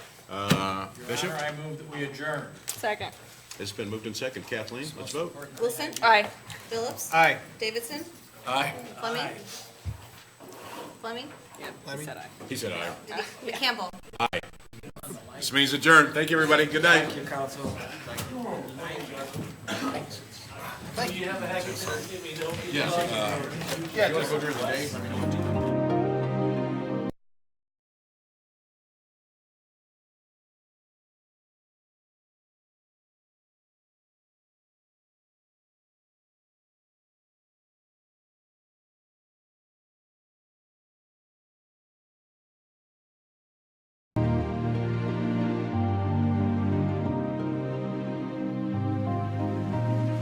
Uh, Bishop, Your Honor, I move that we adjourn. Second. it's been moved in second. Kathleen, let's vote. Wilson? Aye. Phillips? Aye. Davidson? Aye. Fleming? Fleming? Yep, he said aye. He said aye. Campbell? This means adjourned. Thank you, everybody. Good night. uh, Thank you, council.